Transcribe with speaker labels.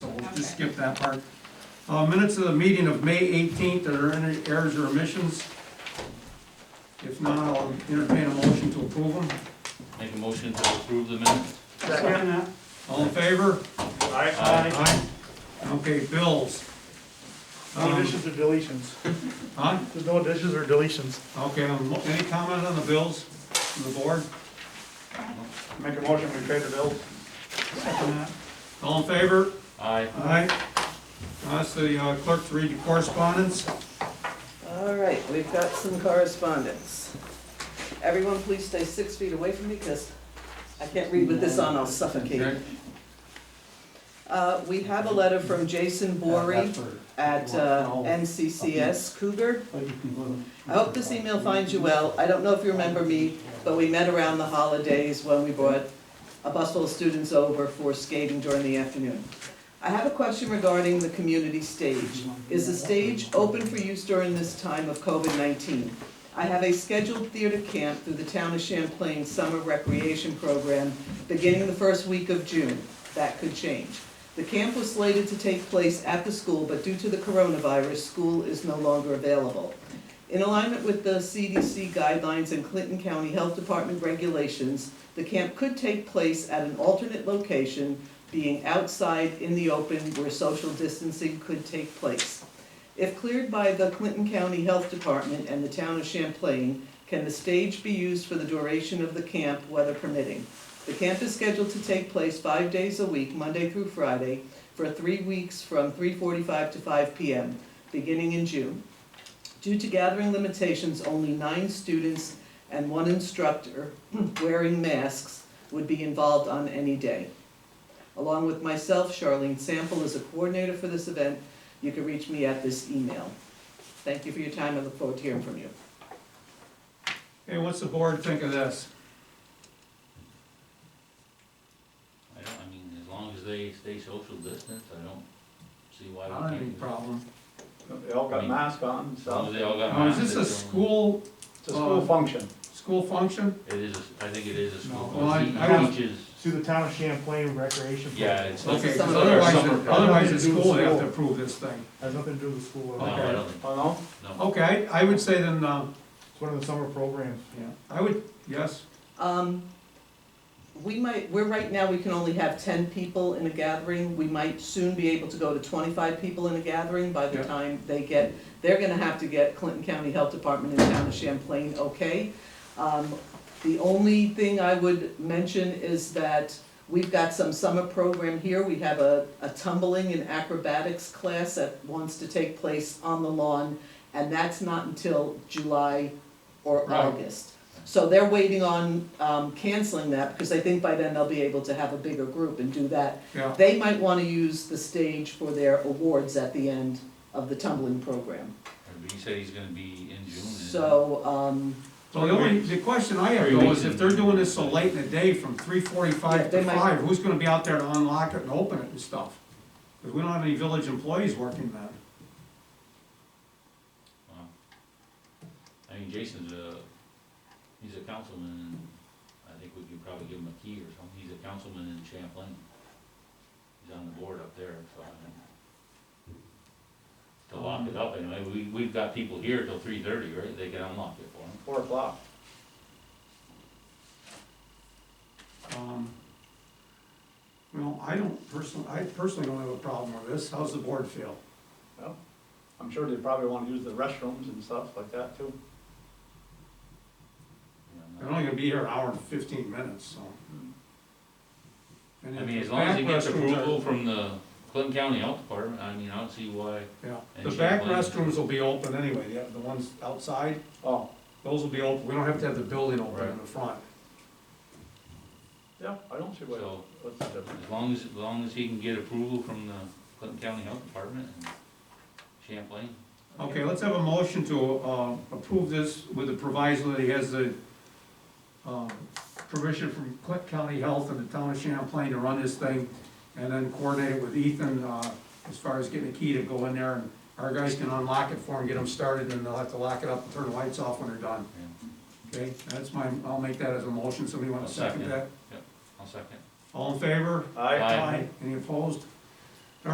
Speaker 1: skip that part. Uh, minutes of the meeting of May eighteenth, are there any errors or omissions? If not, I'll entertain a motion to approve them.
Speaker 2: Make a motion to approve the minutes.
Speaker 3: Second that.
Speaker 1: All in favor?
Speaker 2: Aye.
Speaker 1: Aye. Okay, bills.
Speaker 3: No
Speaker 1: Um,
Speaker 3: additions or deletions.
Speaker 1: Huh?
Speaker 3: There's no additions or deletions.
Speaker 1: Okay, um, any comment on the bills from the board?
Speaker 3: Make a motion, we pay the bills. Second that.
Speaker 1: All in favor?
Speaker 2: Aye.
Speaker 1: Aye. Ask the uh, clerk to read the correspondence.
Speaker 4: All right, we've got some correspondence. Everyone, please stay six feet away from me because I can't read with this on, I'll suffocate. Uh, We have a letter from Jason Bory at uh, NCCS Cougar. I hope this email finds you well. I don't know if you remember me, but we met around the holidays when we brought a bus full of students over for skating during the afternoon. I have a question regarding the community stage. Is the stage open for use during this time of COVID-19? I have a scheduled theater camp through the Town of Champlain Summer Recreation Program beginning the first week of June. That could change. The camp was slated to take place at the school, but due to the coronavirus, school is no longer available. In alignment with the CDC guidelines and Clinton County Health Department regulations, the camp could take place at an alternate location, being outside in the open where social distancing could take place. If cleared by the Clinton County Health Department and the town of Champlain, can the stage be used for the duration of the camp, weather permitting? The camp is scheduled to take place five days a week, Monday through Friday, for three weeks from three forty-five to five P M, beginning in June. Due to gathering limitations, only nine students and one instructor wearing masks would be involved on any day. Along with myself, Charlene Sample is a coordinator for this event. You can reach me at this email. Thank you for your time. I look forward to hearing from you.
Speaker 1: Hey, what's the board think of this?
Speaker 2: I don't, I mean, as long as they stay social distance, I don't see why
Speaker 1: I
Speaker 2: we
Speaker 1: don't
Speaker 2: can't.
Speaker 1: have any
Speaker 2: do it.
Speaker 1: problem.
Speaker 3: They all got masks on,
Speaker 2: As long as
Speaker 3: so
Speaker 2: they all got
Speaker 1: Now, Oh, is
Speaker 2: masks.
Speaker 1: this a
Speaker 2: it's only-
Speaker 1: school,
Speaker 3: it's a school function.
Speaker 1: school function?
Speaker 2: It is, a- I think it is a
Speaker 1: No,
Speaker 2: school.
Speaker 1: well, I-
Speaker 2: He
Speaker 1: I was-
Speaker 2: teaches-
Speaker 5: Through the town of Champlain Recreation. Program.
Speaker 2: Yeah, it's.
Speaker 1: Okay,
Speaker 4: This is
Speaker 1: because
Speaker 4: summer.
Speaker 1: otherwise,
Speaker 2: Summer.
Speaker 1: otherwise the
Speaker 5: Nothing to do with
Speaker 1: school would have to
Speaker 5: school.
Speaker 1: approve this thing.
Speaker 5: Has nothing to do with the school.
Speaker 2: No,
Speaker 5: uh,
Speaker 2: I don't think,
Speaker 3: Oh, no?
Speaker 2: no.
Speaker 1: Okay, I would say then, uh,
Speaker 5: It's one of the summer programs.
Speaker 1: yeah, I would, yes,
Speaker 4: Um, we might, we're right now, we can only have ten people in a gathering. We might soon be able to go to twenty-five people in a gathering by the
Speaker 1: Yeah.
Speaker 4: time they get, they're gonna have to get Clinton County Health Department and Town of Champlain, okay? Um, the only thing I would mention is that we've got some summer program here. We have a, a tumbling and acrobatics class that wants to take place on the lawn, and that's not until July or
Speaker 1: Right.
Speaker 4: August. So they're waiting on um, canceling that, because they think by then they'll be able to have a bigger group and do that.
Speaker 1: yeah.
Speaker 4: They might want to use the stage for their awards at the end of the tumbling program.
Speaker 2: He said he's gonna be in June. isn't he?
Speaker 4: So, um,
Speaker 1: So the only, the question I have
Speaker 2: Three
Speaker 1: though
Speaker 2: weeks
Speaker 1: is
Speaker 2: in.
Speaker 1: if they're doing this so late in the day from three
Speaker 4: Yeah,
Speaker 1: forty-five to
Speaker 4: they might-
Speaker 1: five, who's gonna be out there to unlock it and open it and stuff? Because we don't have any village employees working then.
Speaker 2: Wow. I mean, Jason's a, he's a councilman, and I think we could probably give him a key or something, he's a councilman in Champlain. He's on the board up there, so I think. To lock it up, anyway, we, we've got people here till three thirty, right, they can unlock it for him.
Speaker 3: Four o'clock.
Speaker 1: Um, Well, I don't personally, I personally don't have a problem with this, how's the board feel?
Speaker 3: Well, I'm sure they probably wanna use the restrooms and stuff like that too.
Speaker 2: you
Speaker 1: They're
Speaker 2: know,
Speaker 1: only gonna be here an hour and fifteen minutes, so. And
Speaker 2: and Hmm. I
Speaker 1: if
Speaker 2: mean,
Speaker 1: the
Speaker 2: as long as he
Speaker 1: back
Speaker 2: gets
Speaker 1: restrooms are-
Speaker 2: approval from the Clinton County Health Department, I mean, I don't see why,
Speaker 1: Yeah,
Speaker 2: and
Speaker 1: the
Speaker 2: she
Speaker 1: back
Speaker 2: complains.
Speaker 1: restrooms will be open anyway, the, the ones outside,
Speaker 3: Oh,
Speaker 1: those will be open, we don't have to have the building open in
Speaker 2: Right.
Speaker 1: the front.
Speaker 3: yeah, I don't see what,
Speaker 2: So-
Speaker 3: what's the difference.
Speaker 2: as long as, as long as he can get approval from the Clinton County Health Department and Champlain.
Speaker 1: Okay, let's have a motion to, uh, approve this with the proviso that he has the, um, permission from Clint County Health and the town of Champlain to run this thing, and then coordinate it with Ethan, uh, as far as getting a key to go in there, and our guys can unlock it for him, get him started, and they'll have to lock it up and turn the lights off when they're done,
Speaker 2: Yeah.
Speaker 1: okay? That's my, I'll make that as a motion, somebody wanna
Speaker 2: I'll
Speaker 1: second
Speaker 2: second.
Speaker 1: that?
Speaker 2: I'll second.
Speaker 1: All in favor?
Speaker 3: Aye.
Speaker 2: Aye.
Speaker 1: Any opposed?